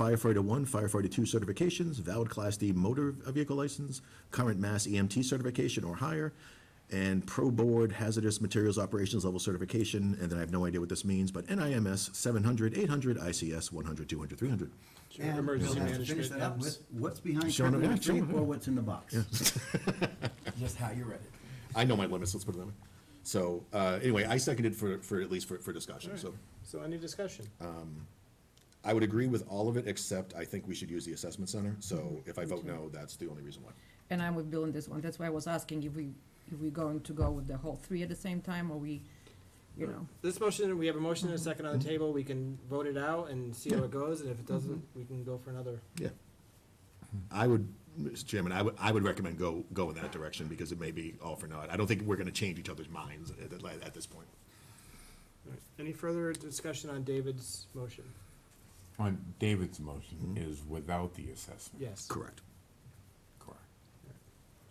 firefighter one, firefighter two certifications, valid Class D motor vehicle license, current mass EMT certification or higher, and pro board hazardous materials operations level certification, and then I have no idea what this means, but NIMS 700, 800, ICS 100, 200, 300. And we'll Emergency have to finish management. that up with what's behind Showing it, yeah, curriculum showing it, creep or what's in the box. Just how you read it. I know my limits, let's put it that way. So, uh, anyway, I seconded for, for, at least for, for discussion, so. So any discussion? Uh, I would agree with all of it, except I think we should use the assessment center, so if I vote no, that's the only reason why. And I'm with Bill on this one, that's why I was asking if we, if we going to go with the whole three at the same time, or we, you know, This motion, we have a motion and a second Mm-hmm. on the table, we can vote it out and see how it goes, and if it doesn't, Mm-hmm. we can go for another. Yeah. I would, Mr. Chairman, I would, I would recommend go, go in that direction, because it may be all for naught. I don't think we're gonna change each other's minds at, at at this point. Any further discussion on David's motion? On David's motion is without the assessment. Yes. Correct. Correct.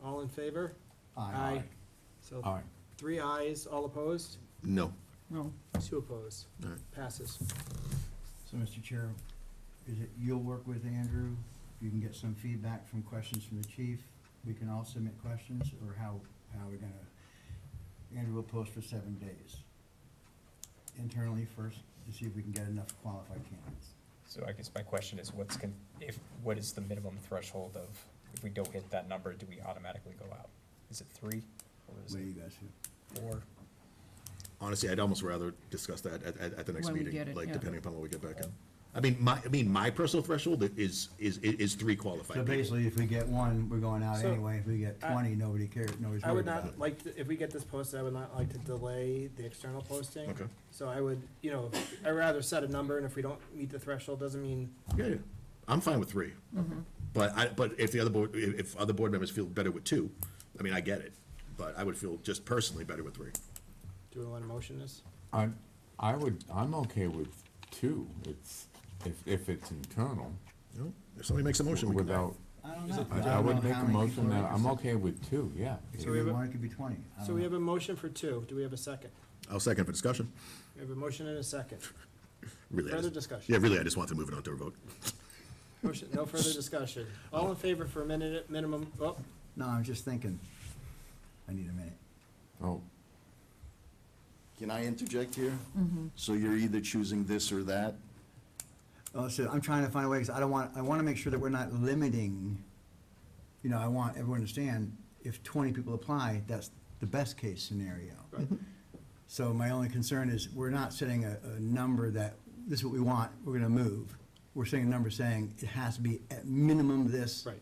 All in favor? Aye. All So Uh. right, three ayes, all opposed, No. no. two opposed, All right. passes. So, Mr. Chair, is it, you'll work with Andrew, you can get some feedback from questions from the chief, we can all submit questions, or how, how we're gonna, Andrew will post for seven days. Internally first, to see if we can get enough qualified candidates. So I guess my question is, what's con, if, what is the minimum threshold of, if we don't hit that number, do we automatically go out? Is it three, or is What do you it guys feel? four? Honestly, I'd almost rather discuss that at, at, at the next When we meeting, get it, like, yeah. depending upon what we get back in. I mean, my, I mean, my personal threshold is, is, is, is three So qualified people. basically, if we get one, we're going out So, anyway, if we get I- twenty, nobody cares, nobody's I worried would about it. not like, to- if we get this posted, I would not like to delay the external posting. Okay. So I would, you know, I'd rather set a number, and if we don't meet the threshold, doesn't mean, Yeah, yeah, I'm fine with three. Mm-hmm. But I, but if the other board, if, if other board members feel better with two, I mean, I get it, but I would feel just personally better with three. do we want to motion this? I, I would, I'm okay with two, it's, if, if it's internal, You know, if somebody makes a motion, we can. without, I don't know. I don't I would know make how a many motion people are that, I'm interested. okay with two, yeah. So we It have could be a- one, it could be twenty. I So don't Uh-huh. we know. have a motion for two, do we have a second? I'll second for discussion. We have a motion and a second. Really, I Further just- discussion. Yeah, really, I just want to move it on to a vote. Motion, no further discussion. All in favor for a minute, minimum, oh, No, I'm just thinking, I need a minute. Oh, Can I interject here? So you're either choosing this or that? Oh, so I'm trying to find a way, because I don't want, I want to make sure that we're not limiting, you know, I want everyone to understand, if twenty people apply, that's the best case scenario. So my only concern is, we're not setting a, a number that, this is what we want, we're gonna move. We're setting a number saying it has to be at minimum this. right,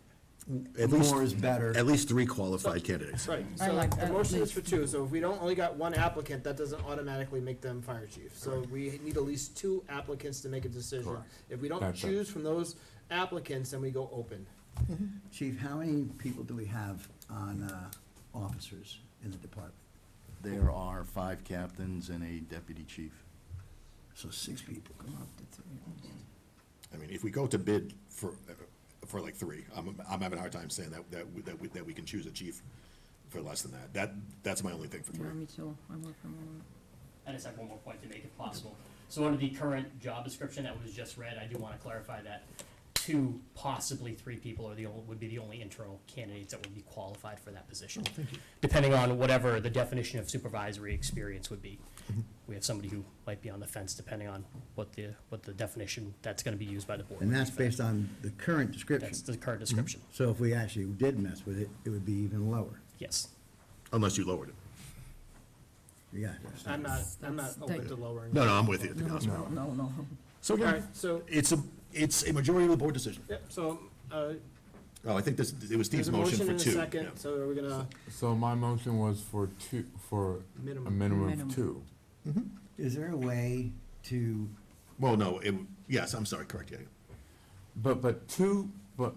At least- More is better. At least three qualified candidates. right. I So like the that, motion is please. for two, so if we don't, only got one applicant, that doesn't automatically make them fire chief. So we need at least two applicants to make a decision. Correct. If we don't That's right. choose from those applicants, then we go open. Chief, how many people do we have on, uh, officers in the department? There are five captains and a deputy chief. So six people, come on. Up to three, okay. I mean, if we go to bid for, uh, for like three, I'm, I'm having a hard time saying that, that, we- that we, that we can choose a chief for less than that. That, that's my only thing for Yeah, three. me too, I'm with him on that. I just have one more point to make if possible. So under the current job description that was just read, I do want to clarify that two, possibly three people are the, ol- would be the only internal candidates that would be qualified for that position. Oh, Depending on whatever the definition of supervisory experience would be. Mm-hmm. We have somebody who might be on the fence depending on what the, what the definition that's going to be used by the board. And would be that's for based that. on the current description. That's the current description, So if we actually did mess with it, it would be even lower. yes. Unless you lowered it. Yeah. I'm not, I'm not That's- open that's- to lowering. No, no, I'm with you, to be honest with No, no, no, So All again, right, so, it's a, it's a majority of the board decision. yep, so, uh, Oh, I think this, it was there's Steve's a motion motion for and a two. second, yeah. so are we gonna, so my motion was for two, for a Minimum. minimum Minimum. of two. Is there a way to, Well, no, it, yes, I'm sorry, correct, yeah. yeah. But, but two, but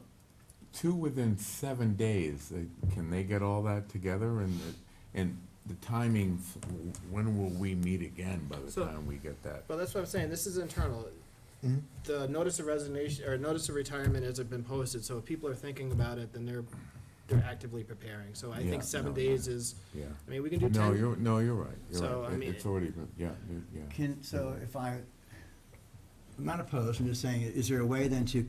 two within seven days, uh, can they get all that together and, the- and the timing, when will we meet again by the So- time we get that? well, that's what I'm saying, this is internal. The notice of resignation, or notice of retirement hasn't been posted, so if people are thinking about it, then they're, they're actively preparing. So I Yeah, think seven no, days is, Yeah. I mean, we can do No, ten, you're, no, you're right, So, you're I right, It- mean, it's already been, yeah, you- yeah. can, so if I, I'm not opposed, I'm just saying, is there a way then to